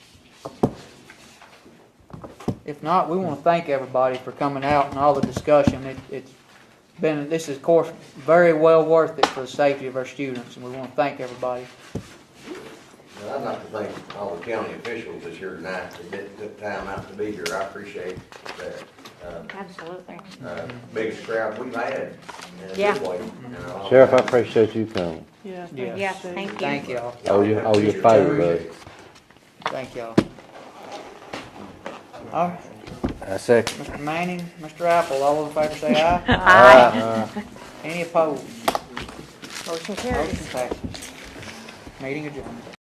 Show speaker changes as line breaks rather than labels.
If not, we want to thank everybody for coming out and all the discussion. It, it's been, this is of course very well worth it for the safety of our students and we want to thank everybody.
Well, I'd like to thank all the county officials this year tonight that did- took time out to be here. I appreciate that. Uh,
Absolutely.
uh, Biggest crowd we've had in a
Yeah.
good way. you know.
Sheriff, I appreciate you coming.
Yeah.
Yes.
Yes, thank you.
Thank y'all,
Oh, you- oh, you're fired, bud.
thank y'all. All right,
I second.
Mr. Manning, Mr. Apple, all those in favor say aye.
Uh,
Any opposed? Motion
Motion
passes. Meeting adjourned.